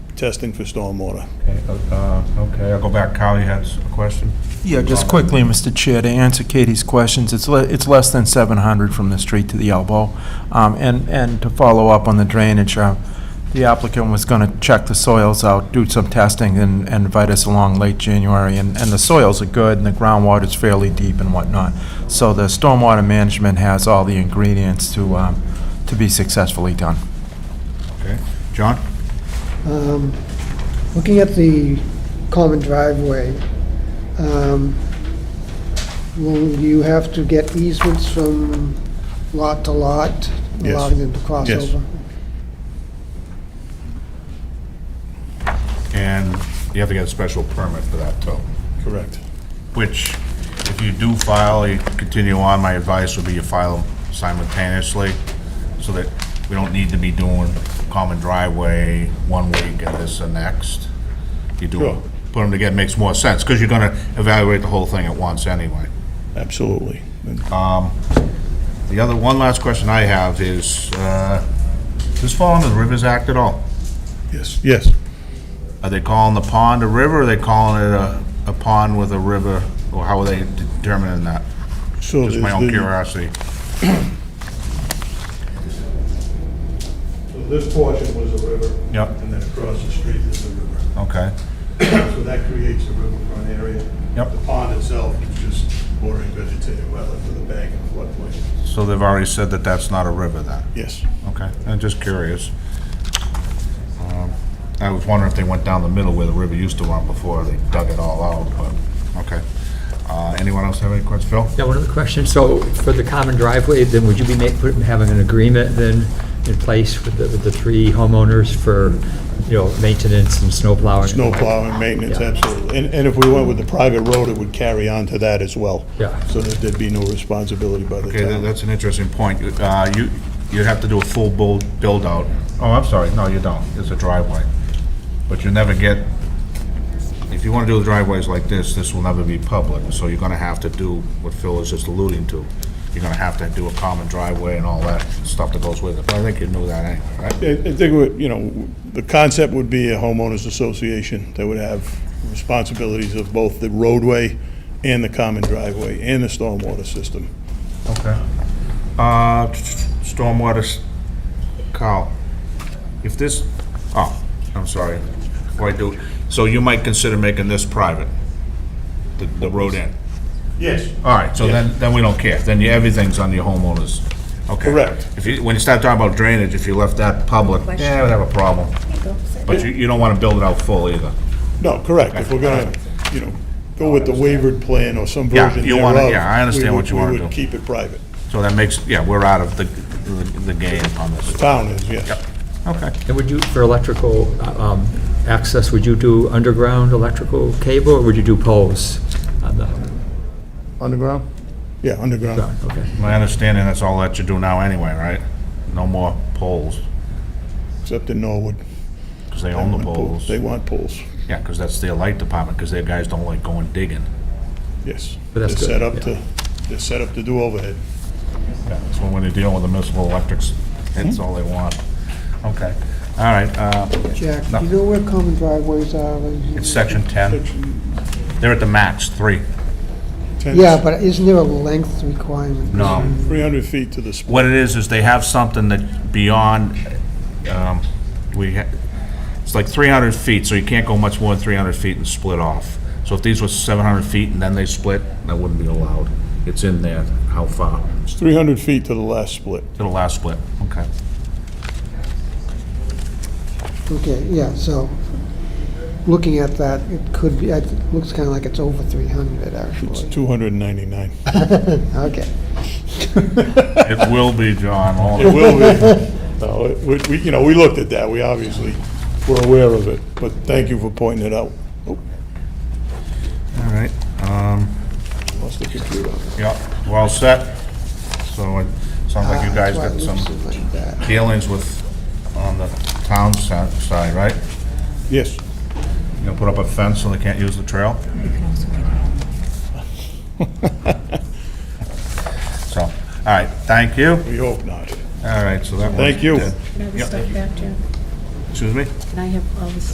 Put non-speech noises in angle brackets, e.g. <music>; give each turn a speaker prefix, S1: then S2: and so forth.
S1: testing for stormwater.
S2: Uh, Okay, I'll go back. Kyle, you had a question?
S3: Yeah, just quickly, Mr. Chair, to answer Katie's questions, it's, le- it's less than 700 from the street to the elbow. Um, And, and to follow up on the drainage, uh, the applicant was going to check the soils out, do some testing, and and invite us along late January, and, and the soils are good, and the groundwater's fairly deep and whatnot. So the stormwater management has all the ingredients to, um, to be successfully done.
S2: Okay. John?
S4: Um, Looking at the common driveway, um, will you have to get easements from lot to lot,
S1: Yes.
S4: allowing them to cross
S1: Yes.
S4: over?
S2: And you have to get a special permit for that, too.
S1: Correct.
S2: Which, if you do file, you continue on, my advice would be you file simultaneously, so that we don't need to be doing common driveway one week and this the next. You do,
S1: Sure.
S2: put them together, makes more sense, because you're gonna evaluate the whole thing at once anyway.
S1: Absolutely. And
S2: Uh, The other, one last question I have is, uh, does this fall under the Rivers Act at all?
S1: Yes, yes.
S2: Are they calling the pond a river, or are they calling it a, a pond with a river, or how are they determining that?
S1: So
S2: Just my
S1: there's
S2: own
S1: the-
S2: curiosity.
S1: so This portion was a river.
S2: Yep.
S1: And then across the street is a river.
S2: Okay.
S1: So that creates a riverfront area.
S2: Yep.
S1: The pond itself is just bordering vegetated wetland with a bank and floodplain.
S2: So they've already said that that's not a river then?
S1: Yes.
S2: Okay, I'm just curious. Um, I was wondering if they went down the middle where the river used to run before they dug it all out, but, okay. Uh, Anyone else have any questions? Phil?
S5: Yeah, one other question. So for the common driveway, then would you be make- put- having an agreement then in place with the, with the three homeowners for, you know, maintenance and snow plowing?
S1: Snow plowing, maintenance,
S5: Yeah.
S1: absolutely. And, and if we went with the private road, it would carry on to that as well.
S5: Yeah.
S1: So that there'd be no responsibility by the
S2: Okay, that-
S1: town.
S2: that's an interesting point. Uh, You, you'd have to do a full build, build-out. Oh, I'm sorry, no, you don't. It's a driveway. But you never get, if you want to do driveways like this, this will never be public, so you're going to have to do what Phil is just alluding to. You're going to have to do a common driveway and all that stuff that goes with it, but I think you knew that anyway, right?
S1: I I think, we- you know, the concept would be a homeowners association that would have responsibilities of both the roadway and the common driveway and the stormwater system.
S2: Okay. Uh, stormwater, s- Carl, if this, oh, I'm sorry, before I do, so you might consider making this private, the, the road end?
S1: Yes.
S2: All right, so then, then we don't care, then you, everything's on your homeowners, okay?
S1: Correct.
S2: If you, when you start talking about drainage, if you left that public, yeah, we'd have a problem. But you, you don't wanna build it out full either.
S1: No, correct. If we're gonna, you know, go with the wavered plan or some
S2: Yeah,
S1: version
S2: you wanna-
S1: thereof.
S2: yeah, I understand
S1: we
S2: what
S1: would-
S2: you wanna
S1: We
S2: do.
S1: would keep it private.
S2: So that makes, yeah, we're out of the, the the game on this.
S1: Town is, yes.
S2: Yep. Okay.
S5: And would you, for electrical uh, um, access, would you do underground electrical cable or would you do poles? on the-
S3: Underground?
S1: Yeah, underground.
S5: Okay.
S2: My understanding, that's all that you do now anyway, right? No more poles,
S1: Except in Norwood.
S2: because they own the
S1: They want
S2: poles.
S1: They want poles,
S2: Yeah, because that's their light department, because their guys don't like going digging.
S1: yes.
S5: But that's
S1: They're set
S5: good,
S1: up
S5: yeah.
S1: to, they're set up to do overhead.
S2: Yeah, That's when when they're dealing with the municipal electrics, that's all they want. Okay, all right, uh,
S4: Jack,
S2: No.
S4: do you know where common driveways are?
S2: it's section 10. They're at the max, three.
S1: Ten-
S4: Yeah, but isn't there a length requirement?
S2: No.
S1: 300 feet to the spot.
S2: What it is, is they have something that beyond, um, we, ha- it's like 300 feet, so you can't go much more than 300 feet and split off. So if these were 700 feet and then they split, that wouldn't be allowed. It's in there, how far,
S1: It's 300 feet to the last split.
S2: to the last split, okay.
S4: Okay, yeah, so, looking at that, it could be, it looks kind of like it's over 300,
S1: It's
S4: actually.
S1: 299.
S4: Okay.
S2: It will be, John, all-
S1: It will be. No, it- we- we, you know, we looked at that, we obviously were aware of it, but thank you for pointing it out. Oh,
S2: all right. um,
S1: Lost the computer.
S2: Yeah, we're all set. So it sounds like you guys got some dealings with, on the town si- side, right?
S1: Yes,
S2: You gonna put up a fence so they can't use the <laughs> trail? So, all right, thank you.
S1: we hope not.
S2: All right, so that was.
S1: Thank you.
S2: dead.
S6: Can I have the
S2: Yep.
S6: stuff back, Jen?
S2: Excuse me?
S6: Can I have all this